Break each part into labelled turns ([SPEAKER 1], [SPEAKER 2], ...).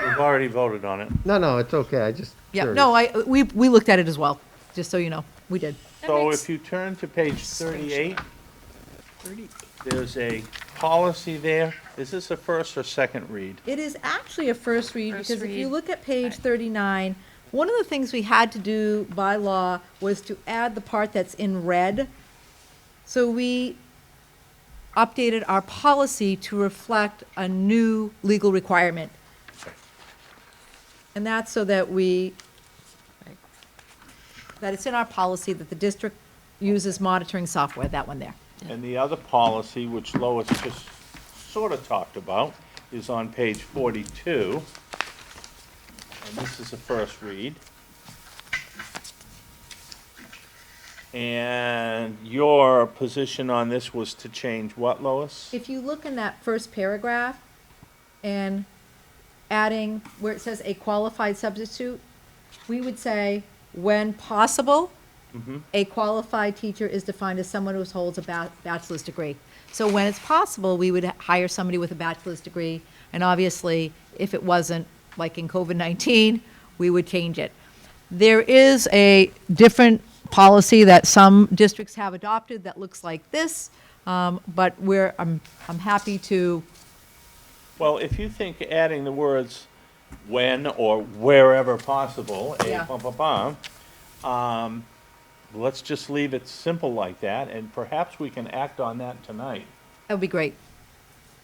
[SPEAKER 1] already voted on it.
[SPEAKER 2] No, no, it's okay. I just.
[SPEAKER 3] Yeah,
[SPEAKER 2] curious.
[SPEAKER 3] no, I, we, we looked at it as well, just so you know, we did.
[SPEAKER 1] So
[SPEAKER 4] makes-
[SPEAKER 1] if you turn to page thirty-eight, there's a policy there. Is this a first or second read?
[SPEAKER 3] It is actually a first read,
[SPEAKER 4] First
[SPEAKER 3] because if you
[SPEAKER 4] read.
[SPEAKER 3] look at page
[SPEAKER 4] Okay.
[SPEAKER 3] thirty-nine, one of the things we had to do by law was to add the part that's in red. So we updated our policy to reflect a new legal requirement. And that's so that we, that it's in our policy that the district uses monitoring software, that one there.
[SPEAKER 1] And the other policy, which Lois just sort of talked about, is on page forty-two. And this is a first read. And your position on this was to change what, Lois?
[SPEAKER 3] If you look in that first paragraph and adding where it says a qualified substitute, we would say, when possible, a qualified teacher is defined as someone who holds a ba- bachelor's degree. So when it's possible, we would hire somebody with a bachelor's degree. And obviously, if it wasn't, like in COVID-19, we would change it. There is a different policy that some districts have adopted that looks like this, um, but we're, I'm, I'm happy to,
[SPEAKER 1] Well, if you think adding the words when or wherever possible,
[SPEAKER 3] Yeah.
[SPEAKER 1] a bum, bum, bum, um, let's just leave it simple like that, and perhaps we can act on that tonight.
[SPEAKER 3] that would be great.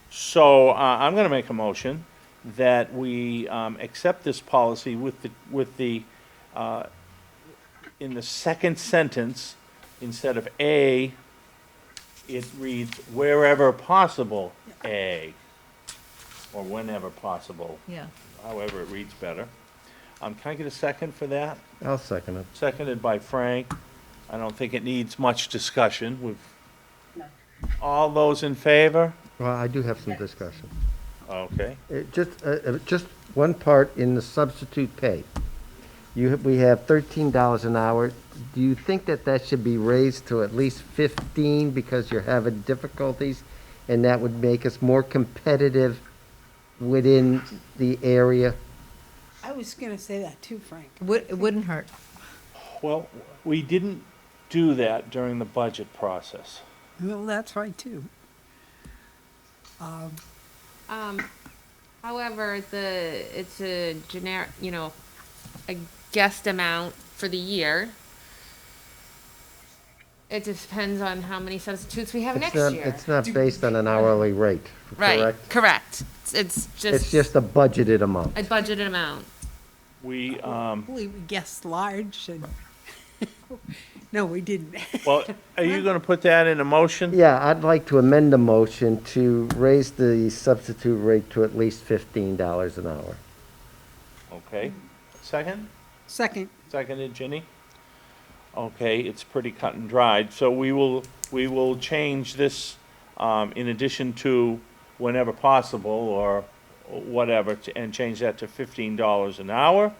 [SPEAKER 1] So, uh, I'm gonna make a motion that we, um, accept this policy with the, with the, uh, in the second sentence, instead of a, it reads wherever possible, a, or whenever possible,
[SPEAKER 3] Yeah.
[SPEAKER 1] however it reads better. Um, can I get a second for that?
[SPEAKER 2] I'll second it.
[SPEAKER 1] Seconded by Frank. I don't think it needs much discussion. We've, all those in favor?
[SPEAKER 2] Well, I do have some discussion.
[SPEAKER 1] Okay.
[SPEAKER 2] It just, uh, uh, just one part in the substitute pay. You, have- we have thirteen dollars an hour. Do you think that that should be raised to at least fifteen because you're having difficulties? And that would make us more competitive within the area?
[SPEAKER 5] I was going to say that too, Frank.
[SPEAKER 3] Would, it wouldn't hurt.
[SPEAKER 1] Well, we didn't do that during the budget process.
[SPEAKER 5] Well, that's right too.
[SPEAKER 4] However, the, it's a generic, you know, a guessed amount for the year. It depends on how many substitutes we have
[SPEAKER 2] It's
[SPEAKER 4] next
[SPEAKER 2] not-
[SPEAKER 4] year.
[SPEAKER 2] It's not based on an hourly rate,
[SPEAKER 4] Right,
[SPEAKER 2] correct?
[SPEAKER 4] correct. It's- It's
[SPEAKER 2] It's
[SPEAKER 4] just
[SPEAKER 2] just a budgeted amount.
[SPEAKER 4] a budgeted amount.
[SPEAKER 1] We, um,
[SPEAKER 5] Well, we guessed large and, no, we didn't.
[SPEAKER 1] well, are you gonna put that in a motion?
[SPEAKER 2] Yeah, I'd like to amend the motion to raise the substitute rate to at least fifteen dollars an hour.
[SPEAKER 1] Okay. Second?
[SPEAKER 5] Second,
[SPEAKER 1] Seconded, Ginny? Okay, it's pretty cut and dried, so we will, we will change this, um, in addition to whenever possible or whatever, to- and change that to fifteen dollars an hour.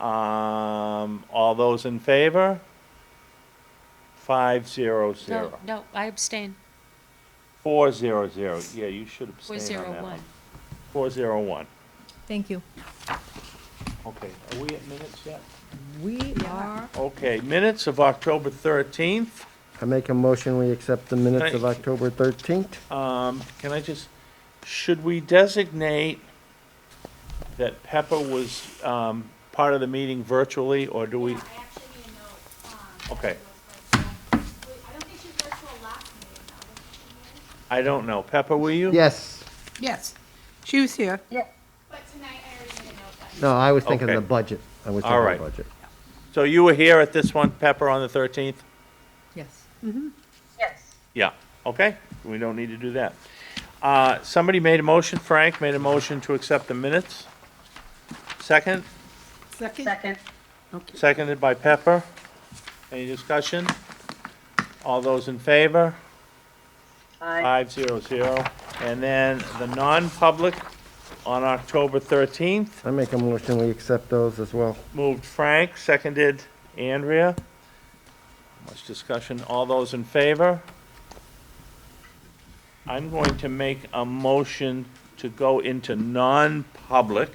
[SPEAKER 1] Um, all those in favor? Five zero
[SPEAKER 6] No,
[SPEAKER 1] zero.
[SPEAKER 6] no, I abstain.
[SPEAKER 1] Four zero zero, yeah, you should
[SPEAKER 6] Four
[SPEAKER 1] abstain on
[SPEAKER 6] zero
[SPEAKER 1] that
[SPEAKER 6] one.
[SPEAKER 1] one. Four zero one,
[SPEAKER 3] Thank you.
[SPEAKER 1] okay, are we at minutes yet?
[SPEAKER 3] We are.
[SPEAKER 1] Okay, minutes of October thirteenth,
[SPEAKER 2] I make a motion, we accept the minutes of
[SPEAKER 1] Thank-
[SPEAKER 2] October thirteenth.
[SPEAKER 1] um, can I just, should we designate that Pepper was, um, part of the meeting virtually, or do we?
[SPEAKER 7] I actually need a note. um,
[SPEAKER 1] Okay,
[SPEAKER 7] wait, I don't think she was there till last meeting, though. wasn't she,
[SPEAKER 1] I
[SPEAKER 7] Mary?
[SPEAKER 1] don't know, Pepper, were you?
[SPEAKER 2] Yes,
[SPEAKER 5] yes. She was here.
[SPEAKER 7] But tonight, I already made a note that.
[SPEAKER 2] no, I was thinking
[SPEAKER 1] Okay.
[SPEAKER 2] the budget. I was
[SPEAKER 1] All
[SPEAKER 2] thinking the
[SPEAKER 1] right.
[SPEAKER 2] budget.
[SPEAKER 1] So you were here at this one, Pepper, on the thirteenth?
[SPEAKER 3] Yes.
[SPEAKER 1] Yeah, okay, we don't need to do that. Uh, somebody made a motion, Frank made a motion to accept the minutes. Second?
[SPEAKER 5] Second? Second. Okay.
[SPEAKER 1] Seconded by Pepper. Any discussion? All those in favor? Aye. Five zero zero. And then the non-public on October thirteenth,
[SPEAKER 2] I make a motion, we accept those as well.
[SPEAKER 1] moved Frank, seconded Andrea. Much discussion. All those in favor? I'm going to make a motion to go into non-public